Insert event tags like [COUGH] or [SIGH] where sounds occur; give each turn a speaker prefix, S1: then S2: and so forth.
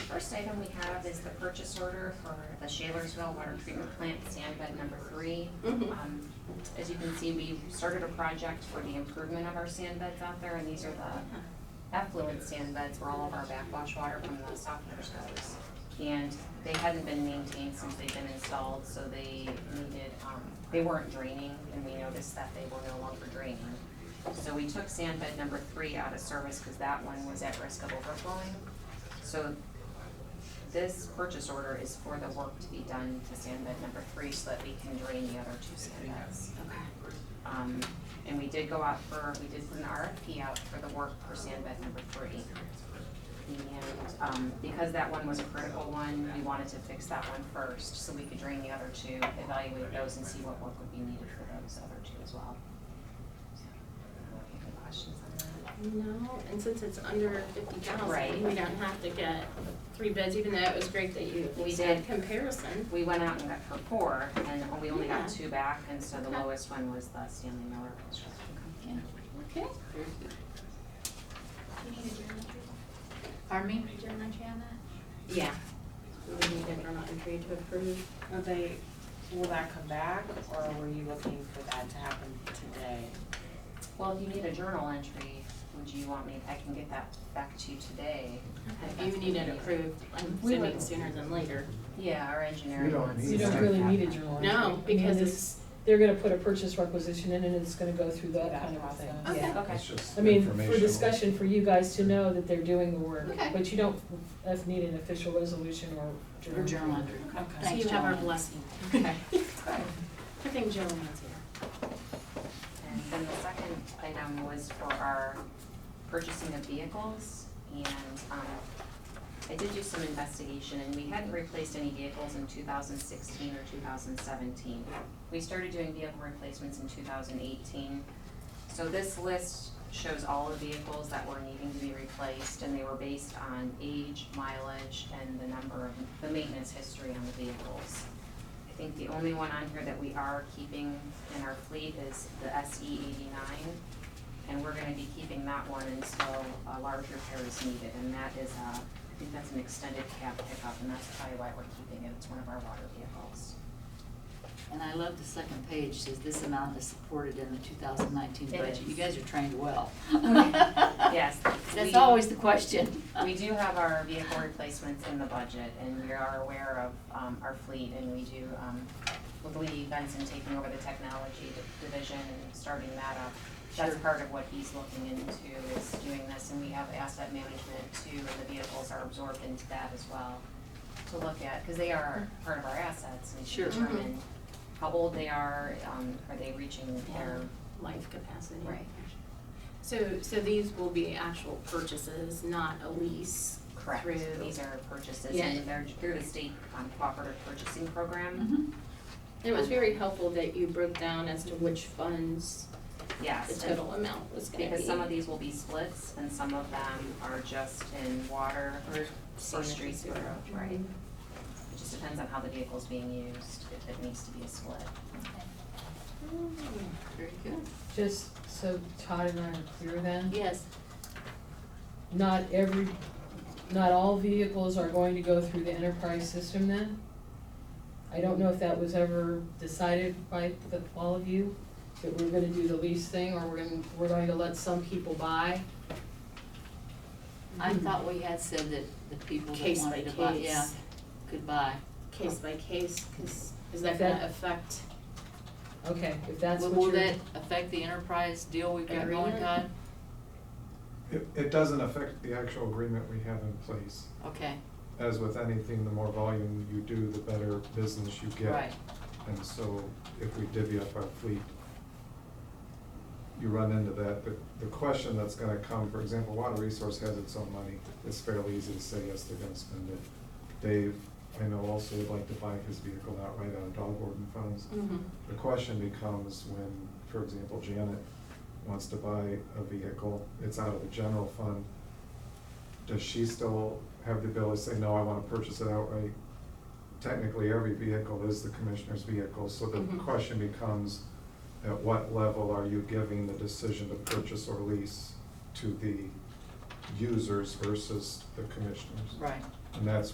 S1: first item we have is the purchase order for the Shalersville Water Treatment Plant Sand Bed Number Three.
S2: Mhm.
S1: Um, As you can see, we started a project for the improvement of our sand beds out there, and these are the effluent sand beds where all of our backwash water from the softeners goes. And they hadn't been maintained since they've been installed, so they needed, um, they weren't draining, and we noticed that they were no longer draining. So we took sand bed number three out of service because that one was at risk of overflowing. So this purchase order is for the work to be done to sand bed number three so that we can drain the other two sand beds.
S2: Okay.
S1: Um, and we did go out for, we did put an RFP out for the work for sand bed number three. And, um, because that one was a critical one, we wanted to fix that one first so we could drain the other two, evaluate those and see what work would be needed for those other two as well. So, I don't know if you have Any questions on that?
S2: No, and since it's under fifty
S1: Right.
S2: thousand, we don't have to get three bids, even though it was great that you
S1: We
S2: we did
S1: did.
S2: comparison.
S1: We went out and got for four, and we only
S2: Yeah.
S1: got two back, and so the
S2: Okay.
S1: lowest one was the Stanley Miller Construction Company.
S2: Okay.
S3: Pardon me, General Chairman?
S2: Yeah. We need a journal entry to approve.
S4: Will they, will that come back, or were you looking for that to happen today?
S1: Well, if you need a journal entry, would you want me, I can get that back to you today.
S2: Okay, You need it approved, I'm
S1: We
S2: assuming
S1: would.
S2: sooner than later.
S1: Yeah, our
S5: We
S1: engineering
S5: don't
S1: wants.
S5: need
S6: You
S1: to
S6: don't
S1: start
S6: really
S1: that.
S6: need a journal entry. I
S2: No,
S6: mean,
S2: because
S6: they-
S2: it's,
S6: They're gonna put a purchase requisition in and it's gonna go through that
S4: That
S6: kind of thing,
S4: process.
S6: yeah.
S1: Okay,
S5: It's just
S6: I mean, for
S5: informational.
S6: discussion, for you guys to know that they're doing the work,
S2: Okay.
S6: but you don't uh, need an official resolution or
S3: Or
S6: journal.
S3: General Andrew?
S2: so
S4: Okay.
S3: Thanks,
S2: you have our
S3: Joanne.
S2: blessing.
S1: Okay.
S2: I think Joanne's here.
S1: and then the second item was for our purchasing of vehicles, and, um, I did do some investigation, and we hadn't replaced any vehicles in two thousand sixteen or two thousand seventeen. We started doing vehicle replacements in two thousand eighteen, So this list shows all the vehicles that were needing to be replaced, and they were based on age, mileage, and the number of, the maintenance history on the vehicles. I think the only one on here that we are keeping in our fleet is the SE eighty-nine, and we're gonna be keeping that one until a large repair is needed, and that is a, I think that's an extended cab pickup, and that's probably why we're keeping it, it's one of our water
S3: [LAUGHS]
S1: vehicles.
S3: And I love the second page, says this amount is supported in the two thousand nineteen
S1: It
S3: budget. You
S1: is.
S3: guys are trained well. [LAUGHS]
S1: Yes.
S3: That's
S1: we-
S3: always the question.
S1: We do have our vehicle replacements in the budget, and we are aware of um, our fleet, and we do, um, with Lee Benson taking over the technology di- division and starting that up, that's part of what he's looking into, is doing this, and we have asset management too, and the vehicles are absorbed into that as well, to look at, because they are
S2: Mm-hmm.
S1: part of our assets, and to
S3: Sure.
S1: determine how old they are, um, are they reaching their,
S2: Life capacity.
S1: Right.
S2: So, so these will be actual purchases, not a lease
S1: correct,
S2: through.
S1: these are purchases,
S2: Yeah.
S1: and they're through the state um, cooperative purchasing program.
S3: Mhm.
S2: It was very helpful that you broke down as to which funds the
S1: Yes, and
S2: total amount was gonna be.
S1: because some of these will be splits and some of them are just in water or
S2: Same as
S1: streets.
S2: the zero.
S1: Right. It just depends on how the vehicle's being used, if it needs to be a split.
S3: Very good.
S6: Just so Todd and I are clear then,
S3: Yes.
S6: not every, not all vehicles are going to go through the enterprise system then? I don't know if that was ever decided by the, all of you, that we're gonna do the lease thing, or we're gonna, we're going to let some people buy.
S3: I thought we had said that the people that
S2: Case by
S3: wanted to buy, yeah,
S2: case,
S3: could buy.
S2: case by case, cause is that
S6: That-
S2: gonna affect?
S6: Okay, if that's
S3: Will-
S6: what
S3: Will
S6: you're.
S3: that affect the enterprise deal we've got going,
S2: Agreement?
S3: Todd?
S5: It, it doesn't affect the actual agreement we have in place.
S3: Okay,
S5: As with anything, the more volume you do, the better business you get.
S3: right.
S5: And so if we divvy up our fleet, you run into that. But the question that's gonna come, for example, Water Resource has its own money. It's fairly easy to say, yes, they're gonna spend it. Dave, I know also would like to buy his vehicle outright out of dog warden funds. The question becomes when, for example, Janet wants to buy a vehicle, it's out of the general fund. Does she still have the ability to say, no, I wanna purchase it outright? Technically, every vehicle is the commissioner's vehicle, so the
S2: Mhm.
S5: question becomes, at what level are you giving the decision to purchase or lease to the users versus the commissioners?
S3: Right.
S5: And that's